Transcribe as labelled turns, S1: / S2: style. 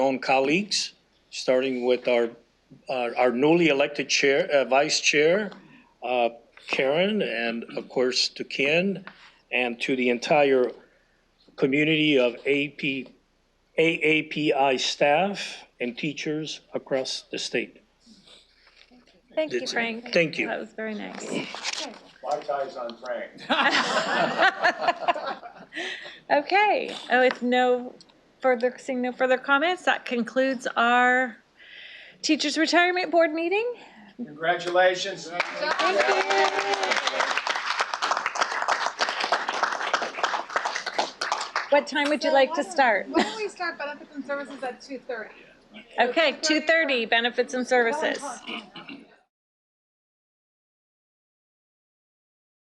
S1: own colleagues, starting with our, uh, our newly elected chair, uh, vice chair, uh, Karen, and of course to Ken, and to the entire community of AP, AAPI staff and teachers across the state.
S2: Thank you,
S1: That's it.
S2: Frank.
S1: Thank you.
S2: That was very nice.
S3: My tie's on Frank.
S2: Okay, oh, it's no further, seeing no further comments, that concludes our Teachers Retirement Board meeting.
S3: Congratulations.
S2: What time would you like to start?
S4: Why don't we start benefits and services at two thirty?
S2: Okay, 2:30, Benefits and Services.